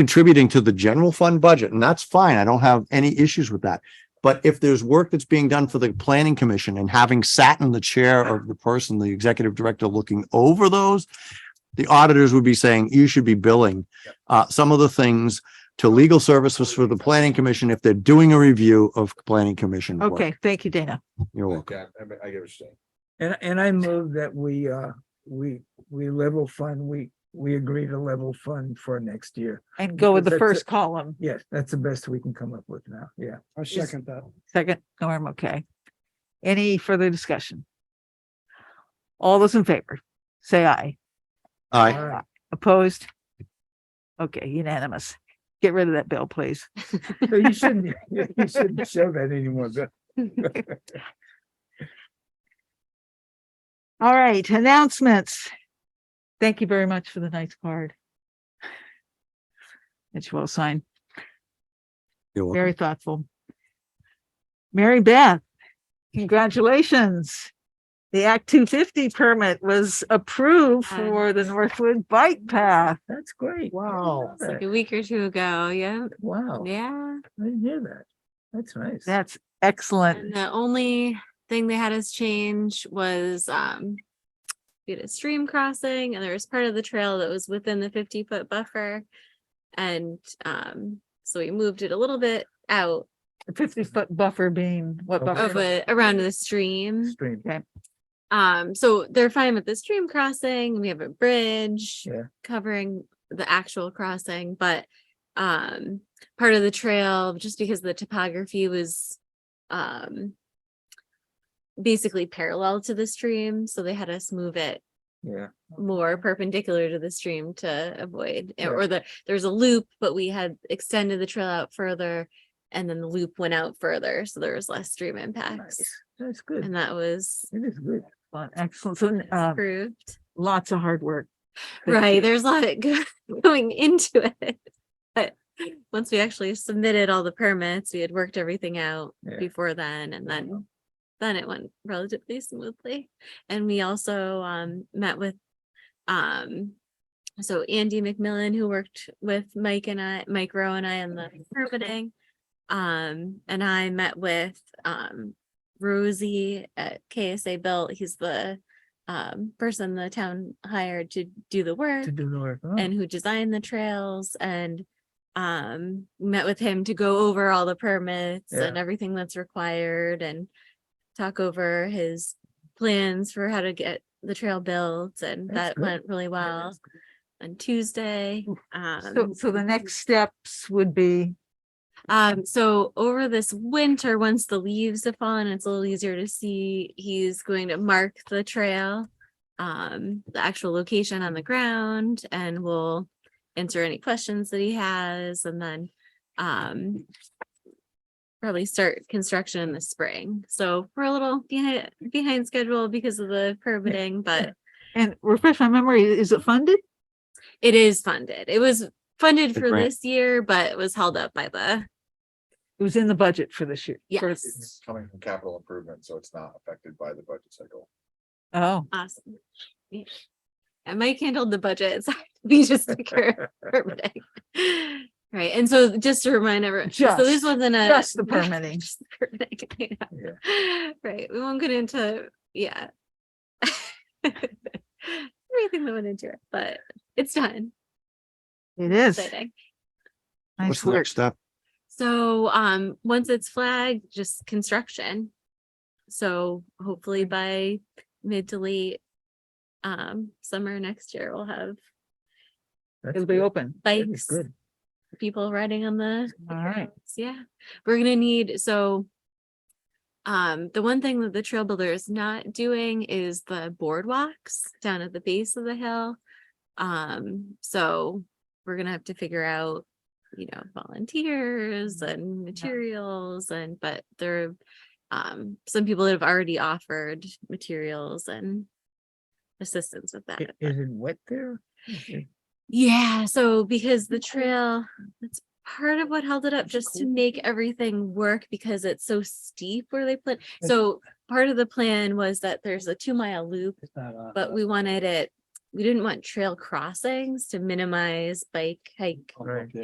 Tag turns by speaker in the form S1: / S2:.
S1: contributing to the general fund budget, and that's fine. I don't have any issues with that. But if there's work that's being done for the planning commission and having sat in the chair of the person, the executive director looking over those, the auditors would be saying, you should be billing uh, some of the things to legal services for the planning commission if they're doing a review of planning commission work.
S2: Okay, thank you, Dana.
S1: You're welcome.
S3: Okay, I, I get what you're saying.
S4: And, and I move that we, uh, we, we level fund, we, we agree to level fund for next year.
S2: And go with the
S4: That's
S2: first
S4: it.
S2: column,
S4: Yes, that's the best we can come up with now. Yeah. I
S2: second
S4: that.
S2: second norm, okay. Any further discussion? All those in favor, say aye.
S1: All right,
S2: Opposed? Okay, unanimous. Get rid of that bill, please.
S4: You shouldn't, you shouldn't show that anymore, but
S2: All right, announcements. Thank you very much for the nice card. It's well signed,
S1: you're welcome.
S2: very thoughtful. Mary Beth, congratulations. The Act two fifty permit was approved
S5: Yes.
S2: for the Northwood Bike Path.
S4: that's great.
S2: Wow.
S4: I didn't
S5: like
S4: know
S5: a week or two ago. Yeah.
S4: that. Wow, I
S5: Yeah.
S4: didn't hear that. That's nice.
S2: That's excellent.
S5: And the only thing they had us change was um we had a stream crossing and there was part of the trail that was within the 50 foot buffer. And um so we moved it a little bit out
S2: Fifty foot buffer being what
S4: Okay.
S5: of
S2: buffer?
S5: a around the stream.
S4: Stream.
S5: Um so they're fine with the stream crossing. We have a bridge
S4: Yeah.
S5: covering the actual crossing, but um part of the trail just because the topography was um basically parallel to the stream so they had us move it
S4: Yeah,
S5: more perpendicular to the stream to avoid eh,
S4: Yeah.
S5: or the there's a loop but we had extended the trail out further and then the loop went out further so there was less stream impacts
S4: nice. That's good.
S5: and that was
S4: It is good.
S2: Excellent, Excellent. So
S4: Um,
S2: uh,
S5: approved
S2: lots of hard work. Thank you.
S5: right there's a lot go- going into it but once we actually submitted all the permits we had worked everything out
S4: Yeah. Mm-hmm.
S5: before then and then then it went relatively smoothly and we also um met with um so andy mcmillan who worked with mike and i mike rowe and i on the permitting um and i met with um rosie at ksa built he's the um person the town hired to do the work
S4: To do the work. Oh,
S5: and who designed the trails and um met with him to go over all the permits
S4: Yeah.
S5: and everything that's required and talk over his plans for how to get the trail built and
S4: That's
S5: that
S4: good.
S5: went really
S4: yeah,
S5: well
S4: that's good.
S5: on Tuesday.
S2: So,
S5: Um,
S2: so the next steps would be,
S5: um, so over this winter, once the leaves have fallen, it's a little easier to see. He's going to mark the trail, um, the actual location on the ground, and we'll answer any questions that he has, and then um, probably start construction in the spring. So we're a little behind behind schedule because of the permitting, but
S2: and refresh my memory, is it funded?
S5: it is funded. It was funded
S1: The
S5: for
S1: grant.
S5: this year, but it was held up by the
S2: It was in the budget for this year. for-
S5: yes.
S3: It's coming from capital improvement, so it's not affected by the budget cycle.
S2: Oh,
S5: Awesome. Yeah. And Mike handled the budget, so we just took care of everything. Right, and so just to remind everyone, so this
S2: Just-
S5: wasn't a.
S2: just the permitting.
S5: just the permitting, yeah. Right, we won't get into, yeah. Everything that went into it, but it's done,
S2: it is.
S5: exciting.
S1: What's
S2: Nice
S1: the
S2: work.
S1: next step?
S5: So, um, once it's flagged, just construction. So hopefully by mid to late, um, summer next year, we'll have
S4: That's
S2: It'll be
S4: good.
S2: open.
S4: That is
S5: bikes,
S4: Good.
S5: people riding on the.
S2: All right.
S5: trails. Yeah, we're gonna need, so. Um, the one thing that the trail builder is not doing is the boardwalks down at the base of the hill. Um, so we're gonna have to figure out, you know, volunteers
S4: Mm-hmm.
S5: and materials and, but there. Um, some people that have already offered materials and assistance with that.
S4: I- Is it wet there? Is it-
S5: Yeah, so because the trail, that's part of what held it up, just to make everything work because it's so steep where they put.
S4: Yes.
S5: So part of the plan was that there's a two mile loop,
S4: it's not on-
S5: but we wanted it, we didn't want trail crossings to minimize bike hike
S4: Right.